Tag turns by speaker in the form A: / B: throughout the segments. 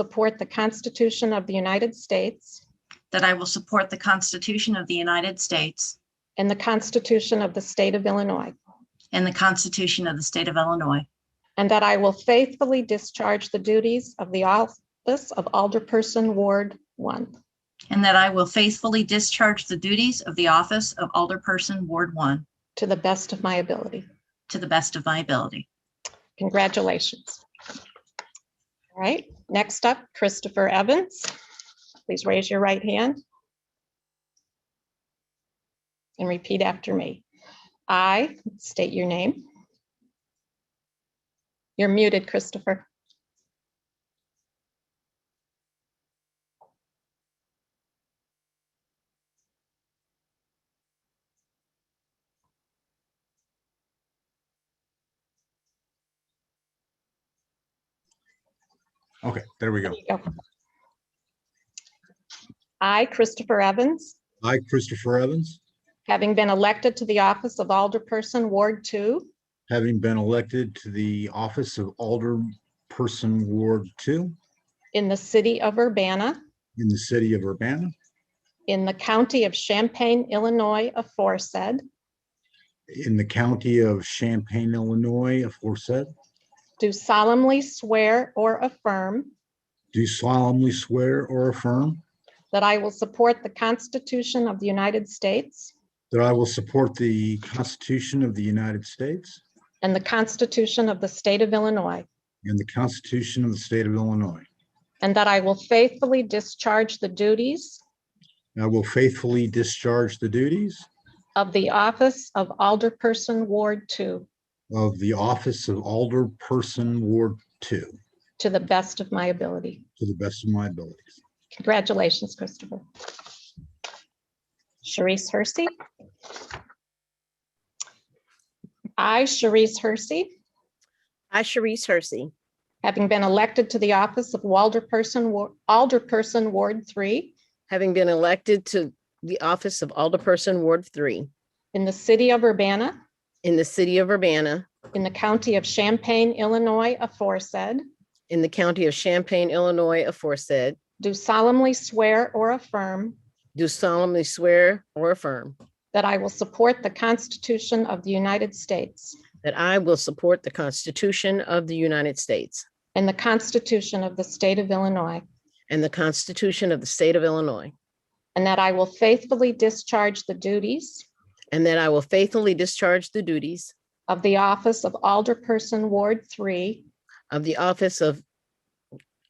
A: support the Constitution of the United States
B: that I will support the Constitution of the United States
A: and the Constitution of the State of Illinois,
B: and the Constitution of the State of Illinois,
A: and that I will faithfully discharge the duties of the office of Alderperson Ward One
B: and that I will faithfully discharge the duties of the office of Alderperson, Ward 1,
A: to the best of my ability.
B: to the best of my ability.
A: Congratulations. All right, next up, Christopher Evans. Please raise your right hand. And repeat after me. I state your name. You're muted, Christopher.
C: Okay, there we go.
A: There you go. I, Christopher Evans,
C: I, Christopher Evans,
A: having been elected to the office of Alderperson, Ward Two,
C: having been elected to the office of Alderperson Ward Two
A: in the city of Urbana,
C: in the city of Urbana,
A: in the county of Champaign, Illinois aforesaid,
C: in the county of Champaign, Illinois, aforesaid,
A: do solemnly swear or affirm
C: do solemnly swear or affirm
A: that I will support the Constitution of the United States
C: that I will support the Constitution of the United States
A: and the Constitution of the State of Illinois,
C: and the Constitution of the state of Illinois.
A: and that I will faithfully discharge the duties
C: And I will faithfully discharge the duties
A: of the office of Alderperson, Ward Two,
C: of the office of Alderperson Ward Two
A: to the best of my ability.
C: to the best of my abilities.
A: Congratulations, Christopher. Sharice Hersey. I, Sharice Hersey,
D: I, Sharice Hersey,
A: having been elected to the office of Alderperson, Wa- Alderperson Ward Three
D: having been elected to the office of Alderperson Ward Three
A: in the city of Urbana,
D: in the city of Urbana,
A: in the county of Champaign, Illinois aforesaid,
D: in the county of Champaign, Illinois, aforesaid,
A: do solemnly swear or affirm
D: do solemnly swear or affirm
A: that I will support the Constitution of the United States
D: that I will support the Constitution of the United States
A: and the Constitution of the State of Illinois,
D: and the Constitution of the state of Illinois,
A: and that I will faithfully discharge the duties
D: and that I will faithfully discharge the duties
A: of the office of Alderperson Ward Three
D: of the office of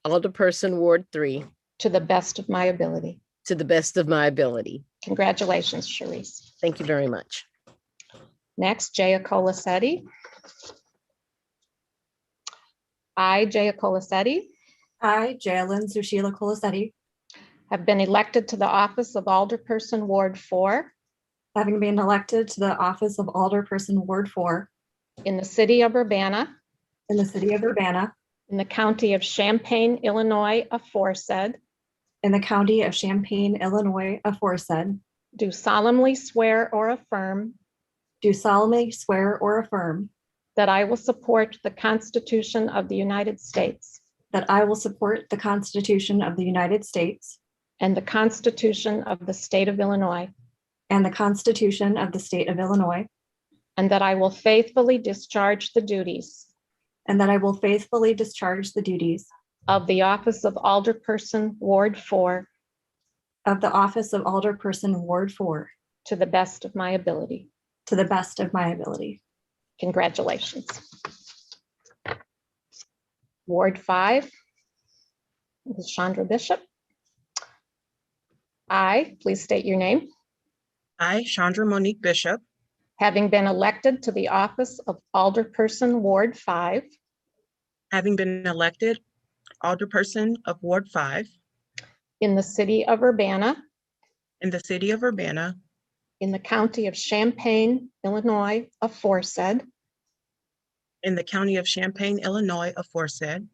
D: Alderperson Ward Three
A: to the best of my ability.
D: to the best of my ability.
A: Congratulations, Sharice.
D: Thank you very much.
A: Next, Jaya Colasetti. I, Jaya Colasetti,
E: I, Jalen Sushila Colasetti,
A: have been elected to the office of Alderperson Ward Four
E: having been elected to the office of Alderperson Ward Four
A: in the city of Urbana,
E: in the city of Urbana,
A: in the county of Champaign, Illinois aforesaid,
E: in the county of Champaign, Illinois, aforesaid,
A: do solemnly swear or affirm
E: do solemnly swear or affirm
A: that I will support the Constitution of the United States
E: that I will support the Constitution of the United States
A: and the Constitution of the State of Illinois,
E: and the Constitution of the state of Illinois,
A: and that I will faithfully discharge the duties
E: and that I will faithfully discharge the duties
A: of the office of Alderperson, Ward Four,
E: of the office of Alderperson Ward Four
A: to the best of my ability.
E: to the best of my ability.
A: Congratulations. Ward Five, Ms. Chandra Bishop. I, please state your name,
F: I, Chandra Monique Bishop,
A: having been elected to the office of Alderperson, Ward Five,
F: having been elected Alderperson of Ward Five
A: in the city of Urbana,
F: in the city of Urbana,
A: in the county of Champaign, Illinois, aforesaid,
F: in the county of Champaign, Illinois, aforesaid,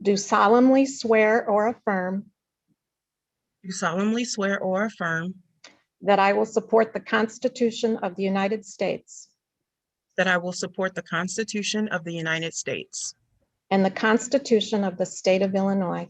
A: do solemnly swear or affirm
F: do solemnly swear or affirm
A: That I will support the Constitution of the United States
F: that I will support the Constitution of the United States
A: and the Constitution of the State of Illinois,